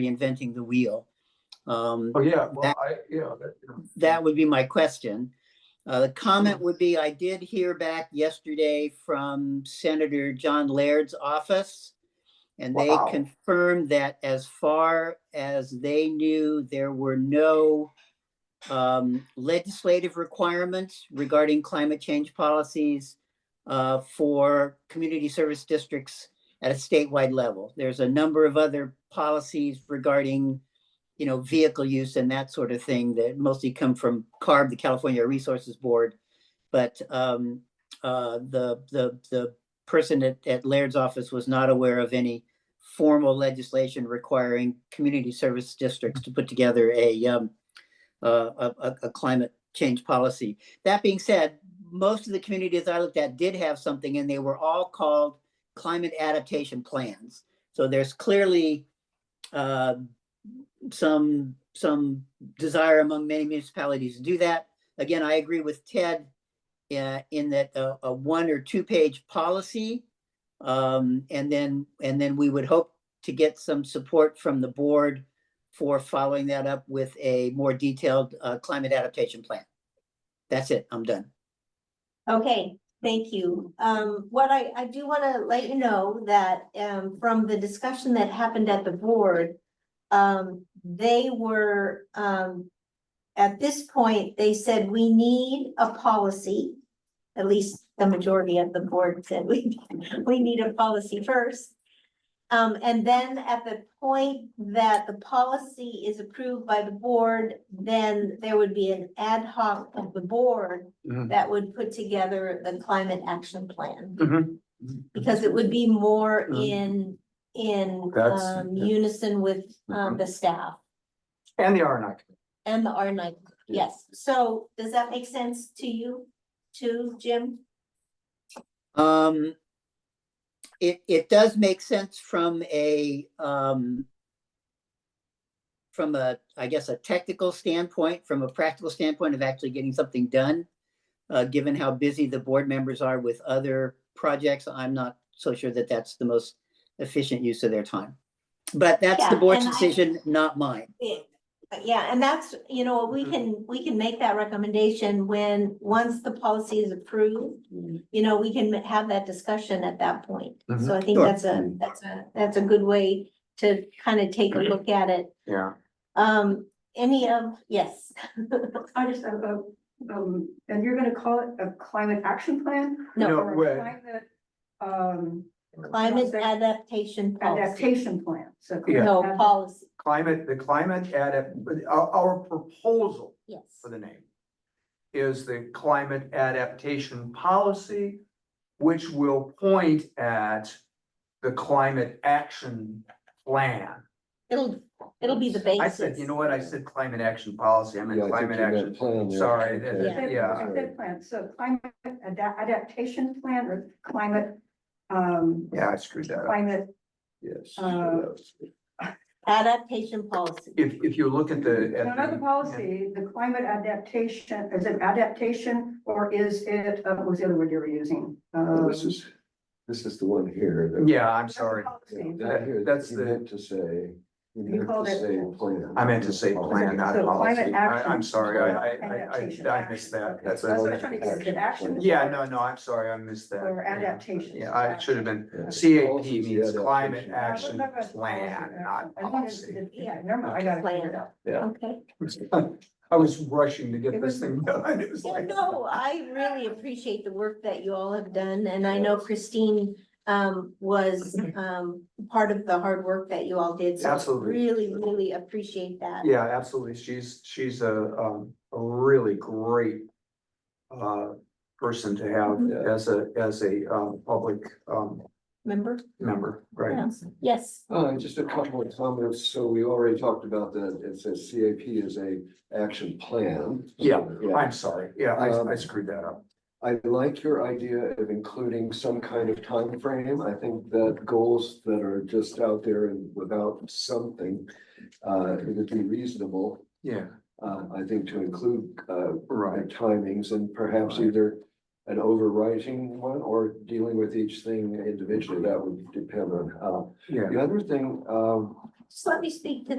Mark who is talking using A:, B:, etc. A: reinventing the wheel. Um,
B: Oh, yeah, well,
A: That-
B: I, yeah. that- yeah.
A: that would be my question. Uh, the comment would be, I did hear back yesterday from Senator John Laird's office. And they
B: Wow.
A: confirmed that as far as they knew, there were no um, legislative requirements regarding climate change policies uh, for community service districts at a statewide level. There's a number of other policies regarding you know, vehicle use and that sort of thing that mostly come from CARB, the California Resources Board. But um, uh, the, the, the person at, at Laird's office was not aware of any formal legislation requiring community service districts to put together a, um, uh, a, a- a climate change policy. That being said, most of the communities I looked at did have something and they were all called climate adaptation plans. So there's clearly uh, some, some desire among many municipalities to do that. Again, I agree with Ted uh, in that uh, a one or two-page policy. um, And then, and then we would hope to get some support from the board for following that up with a more detailed uh, climate adaptation plan. That's it, I'm done.
C: Okay, thank you. Um, what I, I do want to let you know that, um, from the discussion that happened at the board, um, they were, um, at this point, they said we need a policy. At least the majority of the board said we, we need a policy first. Um, and then at the point that the policy is approved by the board, then there would be an ad hoc of the board
D: Mm-hmm.
B: Mhm.
C: that would put together the climate action plan,
B: Mhm.
C: because it would be more
B: Mhm.
C: in, in
B: That's- Mm-hmm.
C: um, unison with um, the staff
B: And the R and I.
C: and the R nine,
B: Yeah.
C: yes. So does that make sense to you, too, Jim?
A: Um, it, it does make sense from a, um, from a, I guess, a technical standpoint, from a practical standpoint of actually getting something done. Uh, given how busy the board members are with other projects, I'm not so sure that that's the most efficient use of their time. But that's the
C: Yeah,
A: board's
C: and I-
A: decision, not mine.
C: Yeah, Uh, yeah, and that's, you know, we
B: Mhm.
C: can, we can make that recommendation when, once the policy is approved.
B: Mhm.
C: You know, we can have that discussion at that point.
B: Mm-hmm.
C: So I think
A: Sure.
C: that's a, that's a, that's a good way to kind of take a
B: Mm-hmm.
C: look at it.
B: Yeah.
C: Um, any of, yes,
E: I just, have a um, and you're gonna call it a climate action plan?
B: No.
C: no,
E: or a
B: way.
E: climate, Um,
C: climate
E: Policy.
C: adaptation policy,
E: adaptation plan, so.
B: Yeah.
C: no
E: climate ad-
C: policy,
B: Climate, the climate adapt, our, our proposal
C: yes.
B: for the name is the climate adaptation policy, which will point at the climate action plan.
C: It'll, it'll be the
B: I
C: basis.
B: said, you know what? I said climate action policy. I
D: Yeah,
B: meant
D: I think
B: climate
D: you meant
B: action.
D: plan there.
B: Sorry, that-
D: Okay.
C: Yeah.
B: yeah.
E: It's a plan, so climate ada- adaptation plan or climate, um,
B: Yeah, I screwed that up.
E: climate,
D: Yes.
E: Uh,
C: Adaptation policy,
B: If, if you look at the. at
E: another
B: the-
E: policy, the climate adaptation, is it adaptation or is it, uh, what was the other word you were using?
D: Well, This
E: Um,
D: is, this is the one here. that-
B: Yeah, I'm sorry.
D: Yeah,
E: Policy.
D: that here,
B: That's
D: you
B: the-
D: meant To say.
E: You
D: meant to
E: called it-
D: say plan.
B: I meant to say plan, not
E: So
B: policy.
E: climate
B: I,
E: action.
B: I'm sorry, I, I,
E: Adaptation.
B: I, I missed that. That's
E: That's what
B: a,
E: I'm trying to get, is it action?
B: yeah, no, no, I'm sorry, I missed that.
E: Or
B: Yeah.
E: adaptation.
B: Yeah, I should have been,
D: Yeah.
B: CAP
D: Policy is
B: means
D: the
B: climate
D: adaptation.
E: Uh,
B: action
E: what about
B: plan,
E: policy?
B: not
E: I wanted to-
B: policy.
E: Yeah, never mind, I gotta figure it out.
C: okay.
B: I was rushing to get this thing done. It was
E: "Oh,
C: Yeah,
B: like.
C: no, I really appreciate the work that you all have done, and I know Christine um was um part of the hard work that you all did. so I
B: Absolutely.
C: Really, really appreciate that.
B: Yeah, absolutely. She's, she's a, um, a really great uh, person to have
D: Yeah.
B: as a, as a, um, public, um,
C: Remember?
B: member, right?
C: Yeah. Yes.
D: Uh, just a couple of comments. So we already talked about that. It says CAP is a action plan.
B: Yeah,
D: Yeah.
B: I'm sorry. Yeah, I, I
D: Um,
B: screwed that up.
D: I like your idea of including some kind of time frame. I think that goals that are just out there and without something, uh, it would be reasonable,
B: Yeah,
D: uh, I think to include, uh,
B: right.
D: right timings and perhaps
B: Right.
D: either an overriding one or dealing with each thing individually. That would depend on how.
B: Yeah,
D: The other thing, um,
C: just let me speak to